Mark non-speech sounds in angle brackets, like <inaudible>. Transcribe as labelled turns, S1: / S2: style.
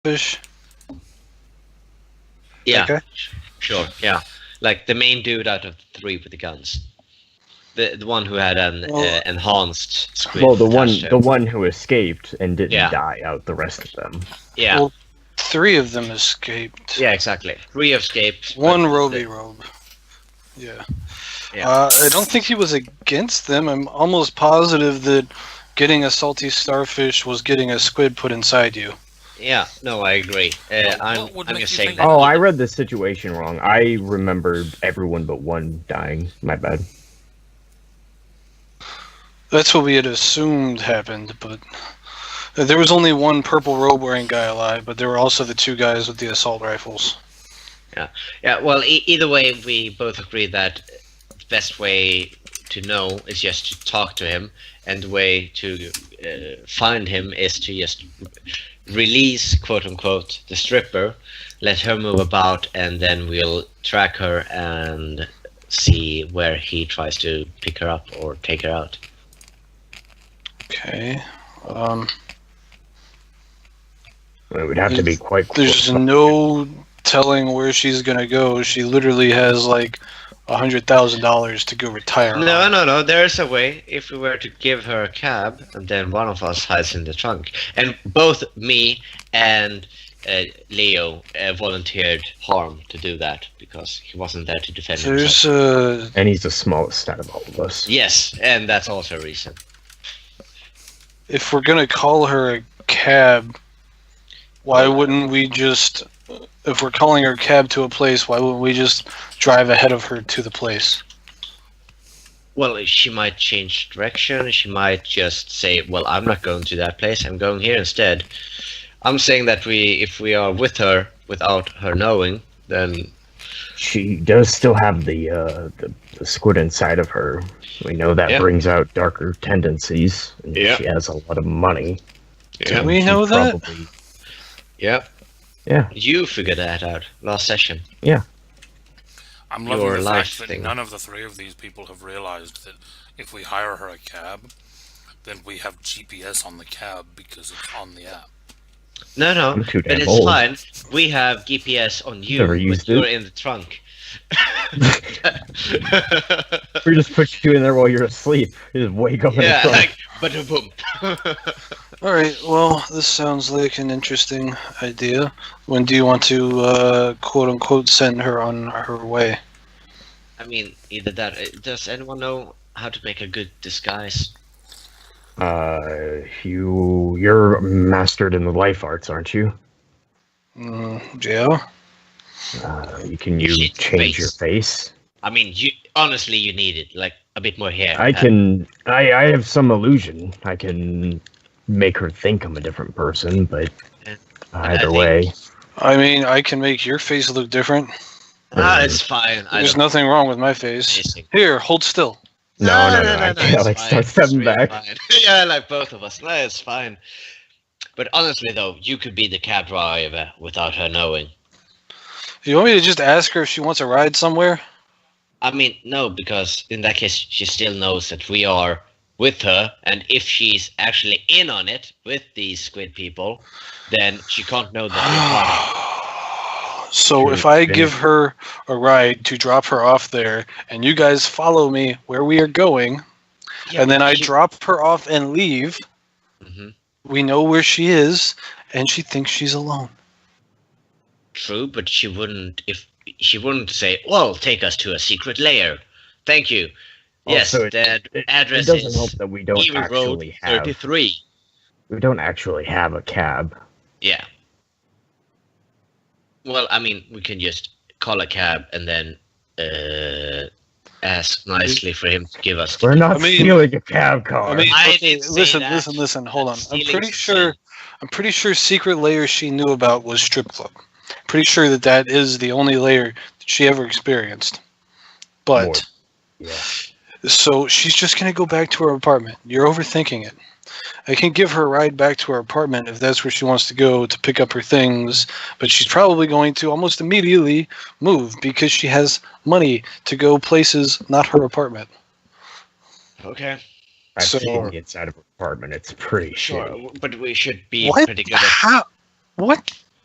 S1: fish?
S2: Yeah,
S1: Okay.
S2: sure. Yeah, like the main dude out of the three with the guns, the the one who had an uh,
S1: Well-
S2: enhanced squid.
S3: Well, the one,
S2: attached to
S3: the
S2: him.
S3: one who escaped and didn't
S2: Yeah.
S3: die out the rest of them.
S2: Yeah,
S1: Well- Three of them escaped.
S2: yeah, exactly. Three escaped. but
S1: One
S2: the-
S1: Roby Robe. Yeah.
S2: Yeah.
S1: Uh, I don't think he was against them. I'm almost positive that getting a salty starfish was getting a squid put inside you.
S2: Yeah, no, I agree. Uh,
S4: What-
S2: I'm,
S4: what would
S2: I'm
S4: make
S2: just
S4: you
S2: saying
S4: think
S2: that.
S4: that?
S3: Oh, I read the situation wrong. I remembered everyone but one dying. My bad.
S1: That's what we had assumed happened, but uh, there was only one purple robe wearing guy alive, but there were also the two guys with the assault rifles.
S2: Yeah, well, e- either way, we both agree that the best way to know is just to talk to him, and the way to uh, find him is to just release, quote unquote, the stripper, let her move about, and then we'll track her and see where he tries to pick her up or take her out.
S1: Okay. Um,
S3: It would have to be quite
S1: there's
S3: close.
S1: no telling where she's gonna go. She literally has like a hundred thousand dollars to go retire.
S2: No,
S1: on.
S2: no, no. There's a way. If we were to give her a cab, and then one of us hides in the trunk, and both me and uh, Leo uh, volunteered harm to do that because he wasn't there to defend
S1: There's
S2: himself.
S1: uh,
S3: And he's the smallest out of all of us.
S2: Yes, and that's also a reason.
S1: if we're gonna call her a cab, why wouldn't we just? If we're calling her a cab to a place, why wouldn't we just drive ahead of her to the place?
S2: Well, she might change direction. She might just say, "Well, I'm not going to that place. I'm going here instead." I'm saying that we, if we are with her without her knowing, then
S3: She does still have the, uh, the the squid inside of her. We know that
S2: Yeah.
S3: brings out darker tendencies. and
S2: Yeah.
S3: She has a lot of money.
S2: Yeah.
S3: and
S1: we
S3: she
S1: know that?
S3: probably-
S2: yeah,
S3: Yeah.
S2: you figured that out last session.
S4: I'm loving
S2: Your
S4: the
S2: life
S4: fact that
S2: thing.
S4: none of the three of these people have realized that if we hire her a cab, then we have GPS on the cab because it's on the app.
S2: No, no,
S3: I'm too
S2: but
S3: damn
S2: it's
S3: old.
S2: fine. We have GPS on you,
S3: Never
S2: but
S3: used it.
S2: you're in the trunk.
S3: We just put you in there while you're asleep. You Just wake up
S2: yeah,
S3: in the front.
S2: like, but boom.
S1: All right. Well, this sounds like an interesting idea. When do you want to uh, quote unquote send her on her way?
S2: <laughs> I mean, either that. uh, Does anyone know how to make a good disguise?
S3: Uh, you you're mastered in the life arts, aren't you?
S1: Mm, yeah.
S3: Uh, you can you
S2: Shit,
S3: change
S2: face.
S3: your face.
S2: I mean, you honestly, you need it. Like a bit more hair.
S3: I
S2: Uh,
S3: can I I have some illusion. I can make her think I'm a different person, but
S2: Yeah.
S3: either
S2: think-
S3: way,
S1: I mean, I can make your face look different.
S2: ah, it's fine. I
S1: There's
S2: don't
S1: nothing wrong with my face.
S2: amazing.
S1: Here, hold still.
S3: No, no, no, I think
S2: it's
S3: Alex
S2: fine,
S3: starts
S2: it's
S3: stepping
S2: really
S3: back.
S2: fine. <laughs> yeah, like both of us. No, it's fine. But honestly, though, you could be the cab driver without her knowing.
S1: You want me to just ask her if she wants a ride somewhere?
S2: I mean, no, because in that case, she still knows that we are with her, and if she's actually in on it with these squid people, then <sighs> she can't know that
S1: so
S3: Sure,
S1: if I
S3: yeah.
S1: give her a ride to drop her off there, and you guys follow me where we are going,
S2: we're part
S1: <sighs> and then I drop her off and leave,
S2: hmm
S1: we know where she is, and she thinks she's alone.
S2: True, but she wouldn't if she wouldn't say, "Well, take us to a secret layer." Thank you. yes,
S3: Also, it-
S2: the ad-
S3: it- it it
S2: address
S3: doesn't help
S2: is
S3: that we don't
S2: Evil Road
S3: actually have
S2: Thirty-Three.
S3: we don't actually have a cab.
S2: Yeah. Well, I mean, we can just call a cab and then uh, ask nicely for him to give us.
S3: We're not
S1: I mean-
S3: stealing a cab car.
S1: I mean,
S2: I
S1: okay,
S2: didn't say
S1: listen,
S2: that.
S1: listen, listen. Hold on. I'm
S2: Stealing's
S1: pretty
S2: a
S1: sure.
S2: sin.
S1: I'm pretty sure secret layer she knew about was strip club. Pretty sure that that is the only layer that she ever experienced. But.
S3: More- yeah.
S1: So she's just going to go back to her apartment. You're overthinking it. I can give her a ride back to her apartment if that's where she wants to go to pick up her things, but she's probably going to almost immediately move because she has money to go places not her apartment.
S2: Okay.
S3: I've
S1: so-
S3: seen the inside of an apartment. It's pretty
S2: Sure,
S3: shitty.
S2: w- but we should be
S1: What?
S2: pretty good at
S1: How? What?